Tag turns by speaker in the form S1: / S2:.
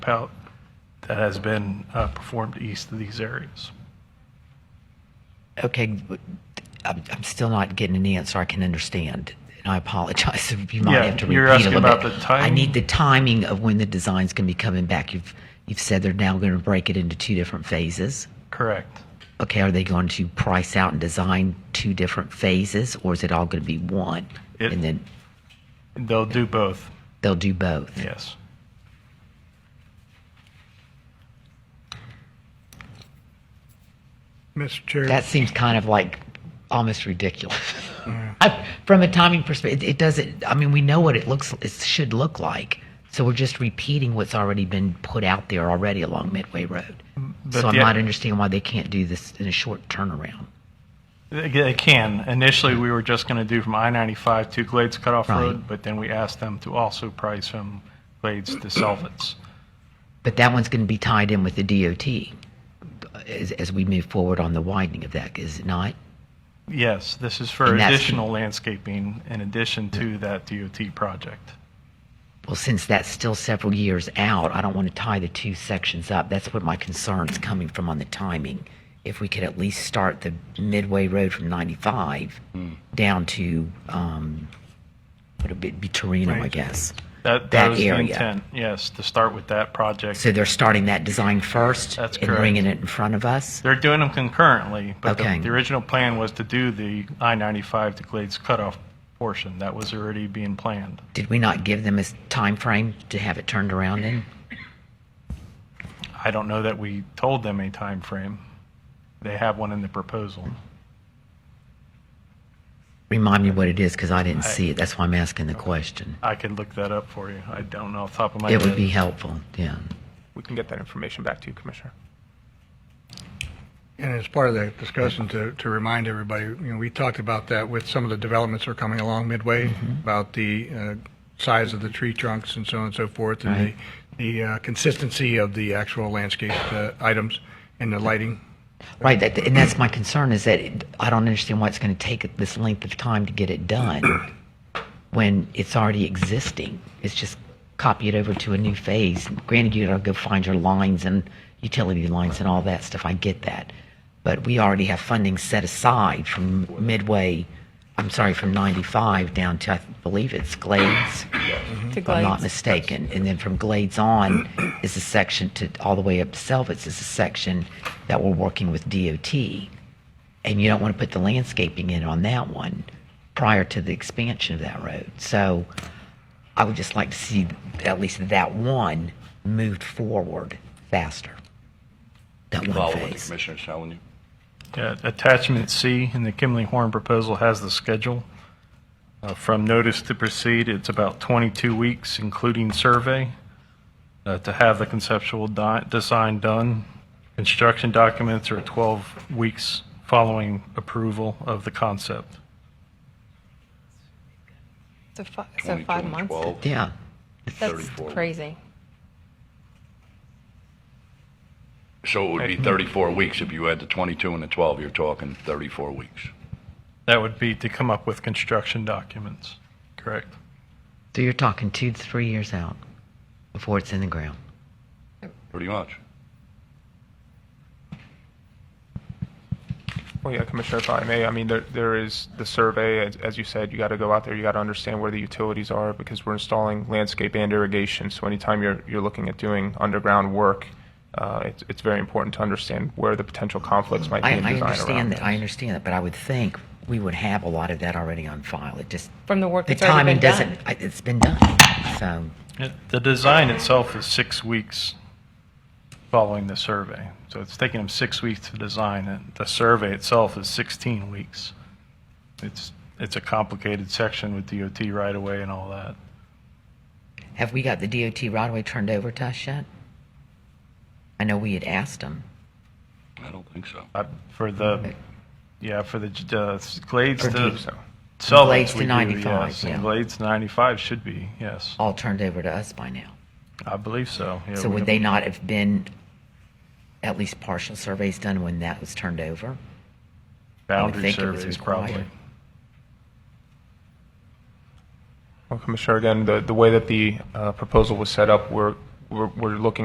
S1: pout that has been uh, performed east of these areas.
S2: Okay, but I'm, I'm still not getting an answer I can understand. And I apologize if you might
S1: Yeah,
S2: have to repeat
S1: you're
S2: a
S1: asking
S2: little
S1: about
S2: bit.
S1: the
S2: I
S1: timing?
S2: need the timing of when the design's going to be coming back. You've you've said they're now going to break it into two different phases.
S1: Correct.
S2: Okay, are they going to price out and design two different phases, or is it all going to be one?
S1: It-
S2: and then
S1: They'll do both,
S2: they'll do both.
S1: yes.
S3: Mr. Chair.
S2: That seems kind of like almost ridiculous. I, from a timing perspective, it doesn't. I mean, we know what it looks. It should look like. So we're just repeating what's already been put out there already along Midway Road.
S1: But
S2: So I'm
S1: the-
S2: not understanding why they can't do this in a short turnaround.
S1: They they can. Initially, we were just going to do from I-95 to Glades Cutoff
S2: Right.
S1: Road, but then we asked them to also price from Glades to Selvets.
S2: But that one's going to be tied in with the DOT as, as we move forward on the widening of that, is it not?
S1: Yes, this is for
S2: And that's-
S1: additional landscaping in addition to that DOT project.
S2: Well, since that's still several years out, I don't want to tie the two sections up. That's what my concern's coming from on the timing. If we could at least start the midway road from 95
S1: Hmm.
S2: down to, um, what would it be, Torino, I
S3: Right.
S2: guess.
S1: That
S2: That
S1: that was the
S2: area.
S1: intent, yes, to start with that project.
S2: So they're starting that design first
S1: That's
S2: and
S1: correct.
S2: bringing it in front of us?
S1: They're doing them concurrently, but the
S2: Okay.
S1: the original plan was to do the I-95 to Glades Cutoff portion. That was already being planned.
S2: Did we not give them a s- time frame to have it turned around in?
S1: I don't know that we told them a time frame. They have one in the proposal.
S2: Remind me what it is because I didn't see it. That's why I'm asking the question.
S1: I could look that up for you. I don't know off the top of my
S2: It
S1: head.
S2: would be helpful, yeah.
S4: We can get that information back to you, Commissioner.
S3: And as part of that discussion, to, to remind everybody, you know, we talked about that with some of the developments that are coming along midway, about the uh, size of the tree trunks and so on and so forth, and
S2: Right.
S3: the, the uh, consistency of the actual landscape uh, items and the lighting.
S2: Right, that, and that's my concern is that it, I don't understand why it's going to take this length of time to get it done when it's already existing. It's just copy it over to a new phase. Granted, you got to go find your lines and utility lines and all that stuff. I get that, but we already have funding set aside from midway. I'm sorry, from 95 down to I believe it's Glades,
S5: to
S2: Mm-hmm. if I'm not
S5: Glades.
S2: mistaken. And then from Glades on is a section to, all the way up to Selvets is a section that we're working with DOT. And you don't want to put the landscaping in on that one prior to the expansion of that road. So I would just like to see at least that one moved forward faster. That one
S6: Follow what the
S2: phase.
S6: commissioner's telling you.
S1: Yeah, Uh, Attachment C in the Kimley Horn proposal has the schedule. Uh, From notice to proceed, it's about 22 weeks, including survey, uh, to have the conceptual di- design done. Construction documents are 12 weeks following approval of the concept.
S5: So fi- so
S6: 22
S5: five
S6: and
S5: months.
S6: 12,
S2: Yeah.
S5: That's
S6: 34.
S5: crazy.
S6: So it would be 34 weeks if you had the 22 and the 12, you're talking 34 weeks.
S1: That would be to come up with construction documents, correct?
S2: So you're talking two to three years out before it's in the ground.
S6: Pretty much.
S4: Well, yeah, Commissioner, if I may, I mean, there, there is the survey, as, as you said, you got to go out there, you got to understand where the utilities are because we're installing landscape and irrigation. So anytime you're, you're looking at doing underground work, uh, it's, it's very important to understand where the potential conflicts might be
S2: I,
S4: in
S2: I
S4: design around
S2: understand that.
S4: this.
S2: I understand that, but I would think we would have a lot of that already on file. It just
S5: From the work
S2: the
S5: that's
S2: timing
S5: already been
S2: doesn't.
S5: done.
S2: I, it's been done. So
S1: It- The design itself is six weeks following the survey. So it's taking them six weeks to design it. The survey itself is 16 weeks. It's, it's a complicated section with DOT right away and all that.
S2: have we got the DOT right away turned over to us yet? I know we had asked them.
S6: I don't think so.
S1: I- Uh, For the, yeah, for the j- uh, s- Glades
S2: For
S1: to
S2: deep,
S4: So,
S1: Selvets.
S2: Glades to
S1: we do,
S2: 95,
S1: yes, and
S2: yeah.
S1: Glades 95 should be, yes.
S2: All turned over to us by now.
S1: I believe so. Yeah,
S2: So
S1: we
S2: would
S1: don't-
S2: they not have been at least partial surveys done when that was turned over?
S1: Boundary
S2: think it was
S1: surveys probably.
S2: required.
S4: well, Commissioner, again, the, the way that the uh, proposal was set up, we're, we're, we're looking